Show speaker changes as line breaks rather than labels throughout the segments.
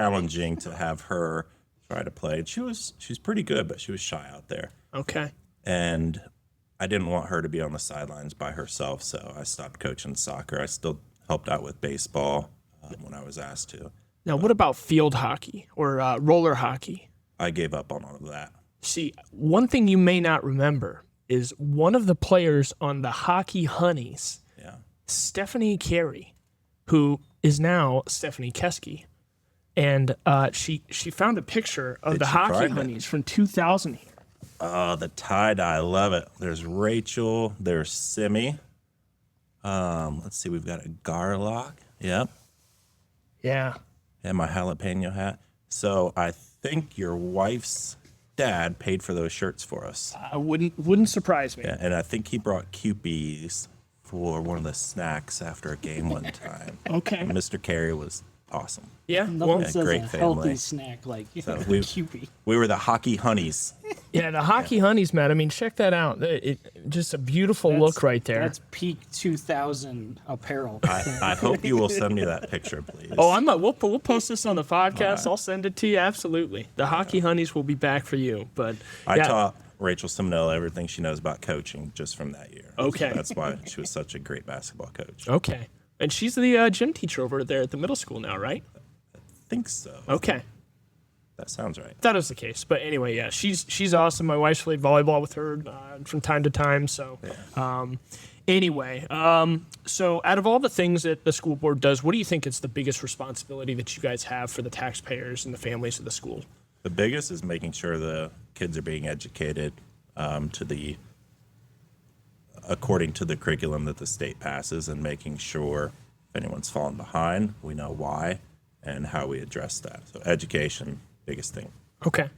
challenging to have her try to play. And she was she's pretty good, but she was shy out there.
Okay.
And I didn't want her to be on the sidelines by herself, so I stopped coaching soccer. I still helped out with baseball um, when I was asked to.
Now, what about field hockey or uh, roller hockey?
I gave up on all of that.
See, one thing you may not remember is one of the players on the Hockey Honeys,
Yeah.
Stephanie Carey, who is now Stephanie Keski. And uh, she she found a picture of
Did
the
she
Hockey
find it?
Honeys from 2000 here.
Oh, the tie dye. I love it. There's Rachel. There's Simi. Um, let's see. We've got a Garlock. Yep.
Yeah.
And my jalapeno hat. So I think your wife's dad paid for those shirts for us.
I wouldn't wouldn't surprise me.
Yeah, and I think he brought QBs for one of the snacks after a game one time.
Okay.
Mr. Carey was awesome.
Yeah.
Nothing
Well,
says
great
a
family.
healthy snack like
we-
QB.
We were the hockey honeys.
yeah, the Hockey Honeys, man. I mean, check that out. It, it- just a beautiful look
That's-
right there.
That's peak 2000 apparel.
I, I hope you will send me that picture, please.
Oh, I'm not. We'll, po- we'll post this on the podcast. I'll send it to you. Absolutely. The hockey honeys will be back for you. But
I
yeah,
taught Rachel Simonella everything she knows about coaching just from that year. So
Okay. Oh.
that's why she was such a great basketball coach. I
Okay. And she's the uh, gym teacher over there at the middle school now, right?
think so.
Okay.
That sounds right.
That is the case. But anyway, yeah, she's she's awesome. My wife's played volleyball with her uh, from time to time. So, um, anyway, um, so out of all the things that the school board does, what do you think is the biggest responsibility that you guys have for the taxpayers and the families of the school?
The biggest is making sure the kids are being educated um, to the according to the curriculum that the state passes, and making sure if anyone's fallen behind, we know why and how we address that. So education, biggest thing.
Okay.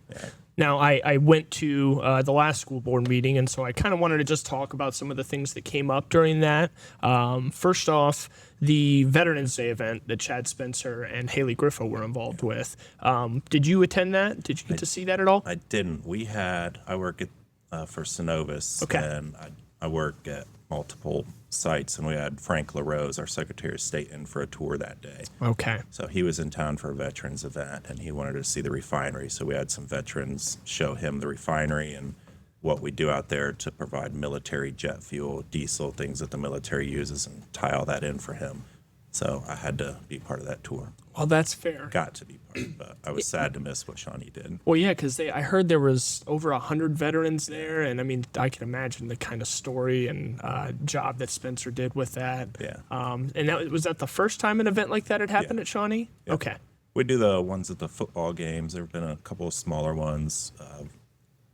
Now, I, I went to uh, the last school board meeting, and so I kind of wanted to just talk about some of the things that came up during that. Um, first off, the Veterans Day event that Chad Spencer and Haley Griffo were involved with. Um, did you attend that? Did you get to see that at all?
I didn't. We had. I work at uh, for Synovus,
Okay.
and I, I work at multiple sites, and we had Frank LaRose, our Secretary of State, in for a tour that day.
Okay.
So he was in town for a veterans event, and he wanted to see the refinery. So we had some veterans show him the refinery and what we do out there to provide military jet fuel, diesel, things that the military uses, and tie all that in for him. So I had to be part of that tour.
Well, that's fair.
Got to be part, but I was sad to miss what Shawnee did.
Well, yeah, because I heard there was over a hundred veterans there, and I mean, I can imagine the kind of story and uh, job that Spencer did with that.
Yeah.
Um, and that was that the first time an event like that had happened at Shawnee. Okay.
We do the ones at the football games. There have been a couple of smaller ones, uh,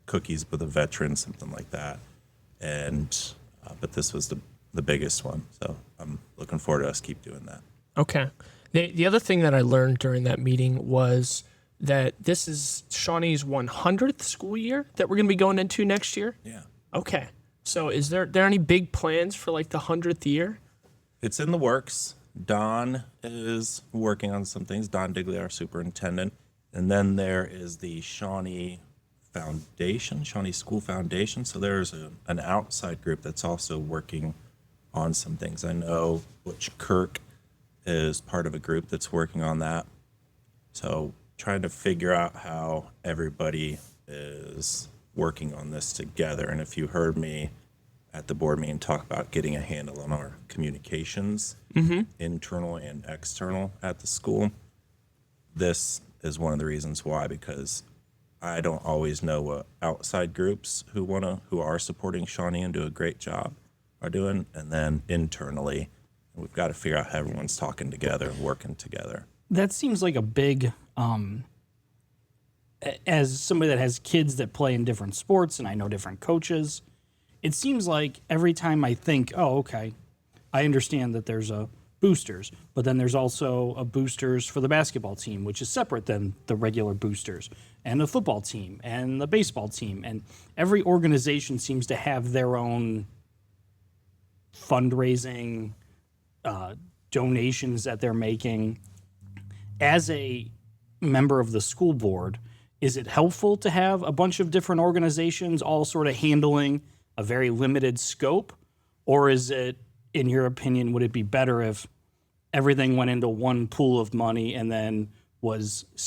cookies with a veteran, something like that. And uh, but this was the the biggest one. So I'm looking forward to us keep doing that.
Okay. The the other thing that I learned during that meeting was that this is Shawnee's 100th school year that we're going to be going into next year.
Yeah,
Okay. So is there there any big plans for like the 100th year?
it's in the works. Don is working on some things. Don Digley, our superintendent, and then there is the Shawnee Foundation, Shawnee School Foundation. So there's a, an outside group that's also working on some things. I know Butch Kirk is part of a group that's working on that. So trying to figure out how everybody is working on this together. And if you heard me at the board meeting talk about getting a handle on our communications, internal and external at the school, this is one of the reasons why because I don't always know what outside groups who wanna who are supporting Shawnee and do a great job are doing, and then internally, we've got to figure out how everyone's talking together and working together.
that seems like a big um a- as somebody that has kids that play in different sports and I know different coaches it seems like every time I think oh okay I understand that there's a boosters but then there's also a boosters for the basketball team which is separate than the regular boosters and the football team and the baseball team and every organization seems to have their own fundraising uh, donations that they're making as a member of the school board, is it helpful to have a bunch of different organizations all sort of handling a very limited scope? Or is it, in your opinion, would it be better if everything went into one pool of money and then was